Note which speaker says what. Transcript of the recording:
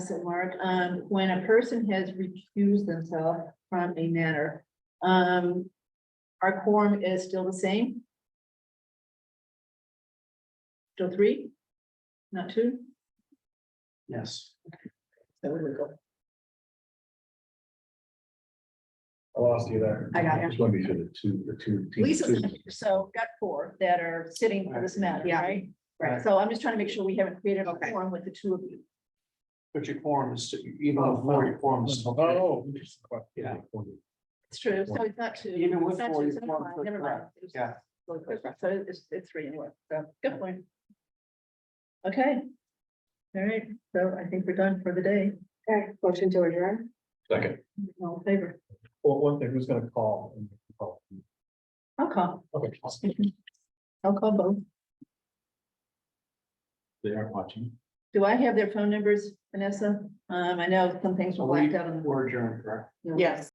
Speaker 1: So Mark, um, when a person has recused themselves from a matter, um, our quorum is still the same? Still three? Not two?
Speaker 2: Yes.
Speaker 1: So we go.
Speaker 2: I lost you there.
Speaker 1: I got you.
Speaker 2: Just want to be sure the two, the two. teams-
Speaker 1: Lisa's,
Speaker 2: two-
Speaker 1: not here, so we've got four that are sitting for this matter,
Speaker 2: Yeah.
Speaker 1: right? Right,
Speaker 2: Right.
Speaker 1: so I'm just trying to make sure we haven't created a
Speaker 3: Okay.
Speaker 1: quorum with the two of you.
Speaker 3: But your quorum is, even with four, your quorum is.
Speaker 2: Oh. interesting.
Speaker 3: Yeah.
Speaker 1: It's true, so it's not two.
Speaker 3: Even with
Speaker 1: It's not
Speaker 3: four,
Speaker 1: two,
Speaker 3: you
Speaker 1: so
Speaker 3: form
Speaker 1: never
Speaker 3: three,
Speaker 1: mind, never mind.
Speaker 3: yeah.
Speaker 1: So it's, it's three anyway, so good point. Okay. All right, so I think we're done for the day.
Speaker 4: Okay, motion to adjourn.
Speaker 2: Second.
Speaker 1: All in favor.
Speaker 2: Well, one thing, who's gonna call? and call?
Speaker 1: I'll call.
Speaker 2: Okay.
Speaker 1: I'll call both.
Speaker 2: They aren't watching.
Speaker 1: Do I have their phone numbers, Vanessa? Um, I know some things were blacked out on.
Speaker 3: We're adjourned, correct?
Speaker 1: the
Speaker 4: Yes.